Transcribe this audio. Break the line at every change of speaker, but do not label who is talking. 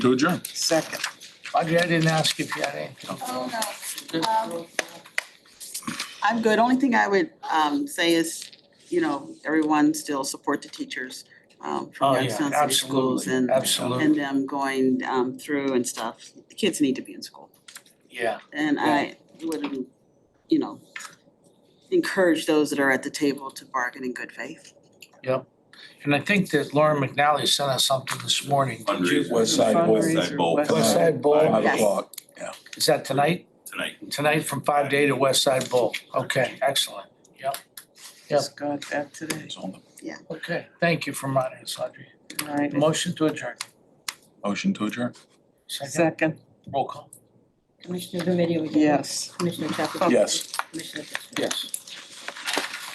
to adjourn.
Second.
Audrey, I didn't ask if you had anything.
uh,
Oh,
no.
Um,
I'm good. Only thing I would um say is, you know, everyone still support the teachers um
Oh,
from
yeah,
Youngstown City Schools
absolutely,
and and
absolutely,
them going um through and stuff. The kids need to be in school.
yeah.
And I would, you know, encourage those that are at the table to bargain in good faith.
And I think that Lauren McNally sent us something this morning. Did you-
Fundraiser. West Side Bowl.
West Side Bowl.
West Side Bowl.
Five
Yes.
o'clock
Is that tonight?
tonight.
Tonight from five to eight at West Side Bowl. Okay, excellent. Just
got that today.
is on the
Okay, thank you for reminding us, Audrey.
All right,
Motion to adjourn.
motion to adjourn.
Second,
second,
roll call.
Commissioner Remedy again.
yes.
Commissioner Chafficanty.
Yes.
Commissioner Fisher.
Yes.